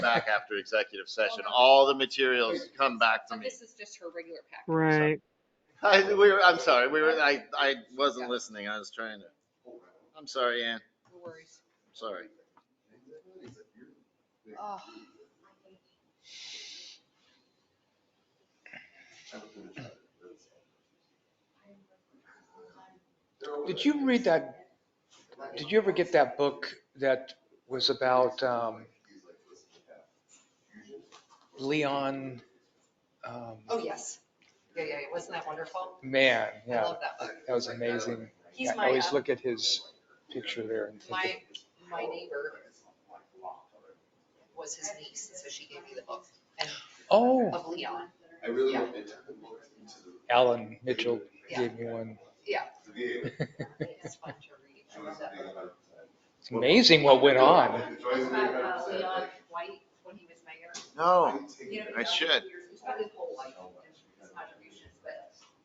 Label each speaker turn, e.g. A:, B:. A: back after executive session. All the materials come back to
B: But
A: me.
B: this is just her regular package.
C: Right.
A: I, we were, I'm sorry, we were, I, I wasn't listening. I was trying to. I'm sorry, Ann.
B: No worries.
A: Sorry.
B: Oh,
D: Did you read that, did you ever get that book that was about um, Leon um,
B: oh, yes. Yeah, yeah, yeah. wasn't that wonderful?
D: Mann?
B: I
D: Yeah,
B: love that book.
D: that was amazing.
B: He's
D: I
B: my,
D: always
B: uh,
D: look at his picture there and think,
B: my, my neighbor was his niece, so she gave me the book and
D: of- oh,
B: of Leon.
E: I really
B: Yeah.
E: want it to look into
D: Alan Mitchell gave me one.
E: the VA.
B: It's fun to read. uh, I love that book.
D: It's amazing what went on.
B: It was about, uh, Leon White when he was mayor.
A: No,
B: You know,
A: I
B: he died
A: should.
B: years- he was probably the